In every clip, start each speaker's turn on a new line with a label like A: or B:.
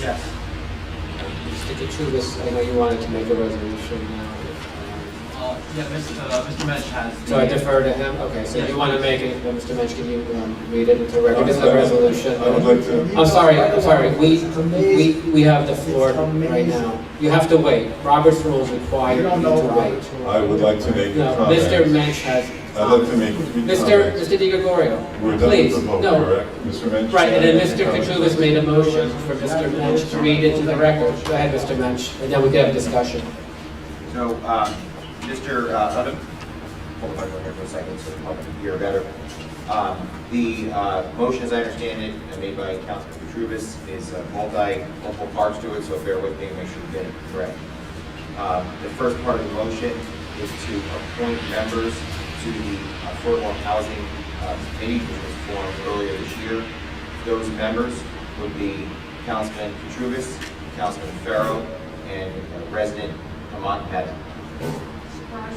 A: Yes.
B: Mr. Katrubis, I know you wanted to make a resolution now.
A: Uh, Yeah, Mr. uh, Mr. Mensch has. the-
B: So I defer to him? Okay, so you want to make it, well, Mr. Mensch, can you um, read it into record as a resolution?
C: I would like to,
B: I'm sorry, I'm sorry, we, we, we have the floor right now. You have to wait. Robert's rules require you
D: You
B: to
D: don't know about
B: wait.
D: it.
C: I would like to make a
B: No,
C: comment.
B: Mr. Mensch has. uh,
C: I'd like to make three comments.
B: Mr. Mr. Di Gregorio,
C: We're done
B: please,
C: with the vote,
B: no.
C: correct? Mr. Mensch?
B: Right, and then Mr.
C: Katrubis
B: Katrubis made a motion for Mr. Mensch to read into the record. Go ahead, Mr. Mensch, and then we can have a discussion.
E: So, um, Mr. uh, Udom, hold on here for a second, so the public can hear better. Um, The uh, motion, as I understand it, uh, made by Councilman Petruvis, is uh, multi, multiple parts to it, so bear with me and make sure you get it correct. Um, The first part of the motion is to appoint members to the Affordable Housing uh, Committee, which was formed earlier this year. Those members would be Councilman Petruvis, Councilman Farrow, and uh, resident Hamant Mehta.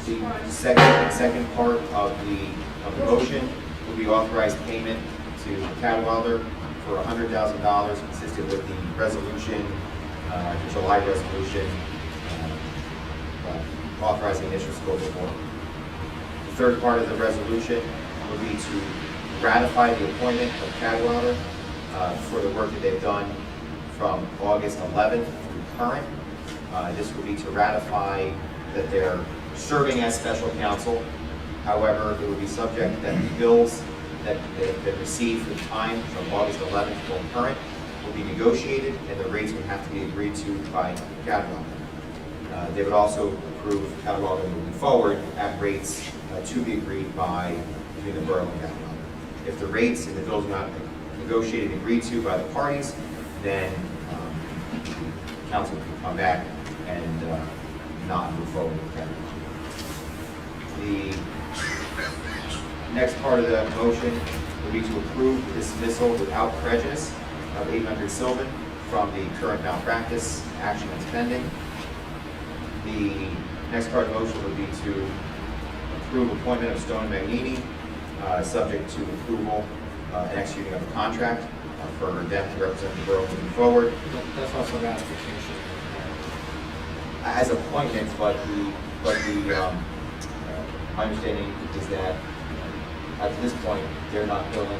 E: The second, second part of the, of the motion will be authorized payment to Cadwalader for hundred thousand dollars consistent with the resolution, uh, the July resolution, uh, authorizing initial scope of work. The third part of the resolution would be to ratify the appointment of Cadwalader uh, for the work that they've done from August 11th through current. Uh, This would be to ratify that they're serving as special counsel. However, it would be subject that the bills that they that receive from time from August 11th till current will be negotiated, and the rates would have to be agreed to by Cadwalader. Uh, They would also approve cataloging moving forward at rates uh, to be agreed by, between the borough and cataloging. If the rates and the bills are not negotiated and agreed to by the parties, then um, council can come back and uh, not move forward with cataloging. The Next part of the motion would be to approve the dismissal without prejudice of 800 Sylvan from the current malpractice action that's pending. The next part of the motion would be to approve appointment of Stone Magnini, uh, subject to approval uh, and executing of a contract uh, for them to represent the borough moving forward
B: That's also ratification.
E: as appointments, but the, but the, um, my understanding is that uh, at this point, they're not filling the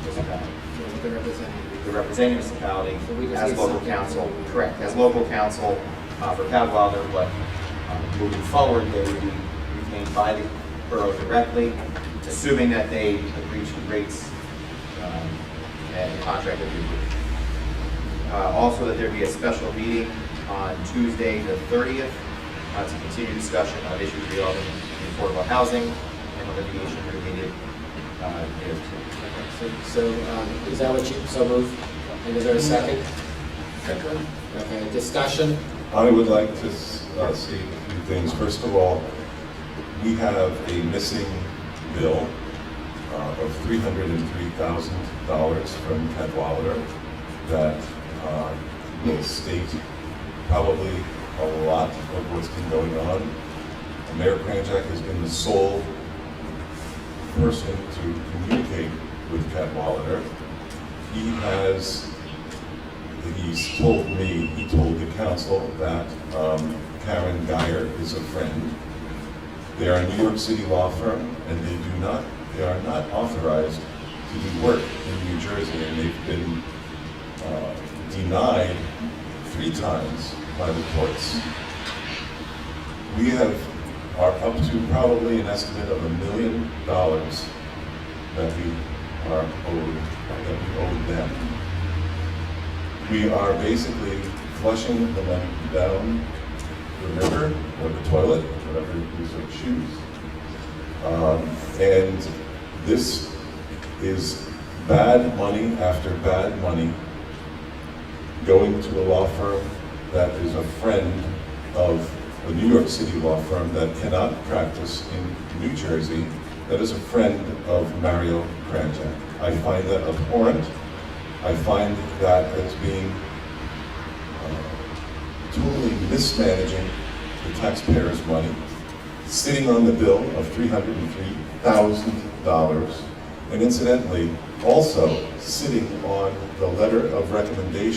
E: municipality.
B: So the representative.
E: They're representing municipality
B: So we just
E: as
B: need
E: local
B: something.
E: council, correct, as local council uh, for Cadwalader, but uh, moving forward, they would be retained by the borough directly, assuming that they agree to rates um, and the contract that we approved. Uh, Also, that there be a special meeting on Tuesday, the 30th, uh, to continue discussion of issues regarding affordable housing and the litigation related uh, thereto.
B: So, so, um, is that what you, so move? And is there a second? Okay, discussion?
C: I would like to s- uh, see a few things. First of all, we have a missing bill uh, of $303,000 from Cadwalader that uh, will state probably a lot of what's been going on. Mayor Kranjak has been the sole person to communicate with Cadwalader. He has He's told me, he told the council that um, Karen Geyer is a friend. They are a New York City law firm, and they do not, they are not authorized to do work in New Jersey, and they've been uh, denied three times by the courts. We have, are up to probably an estimate of a million dollars that we are owed, that we owe them we are basically flushing the money down the river or the toilet, whatever you so choose. Um, And this is bad money after bad money going to a law firm that is a friend of a New York City law firm that cannot practice in New Jersey, that is a friend of Mario Kranjak. I find that abhorrent. I find that as being uh, totally mismanaging the taxpayers' money, sitting on the bill of $303,000, and incidentally, also sitting on the letter of recommendation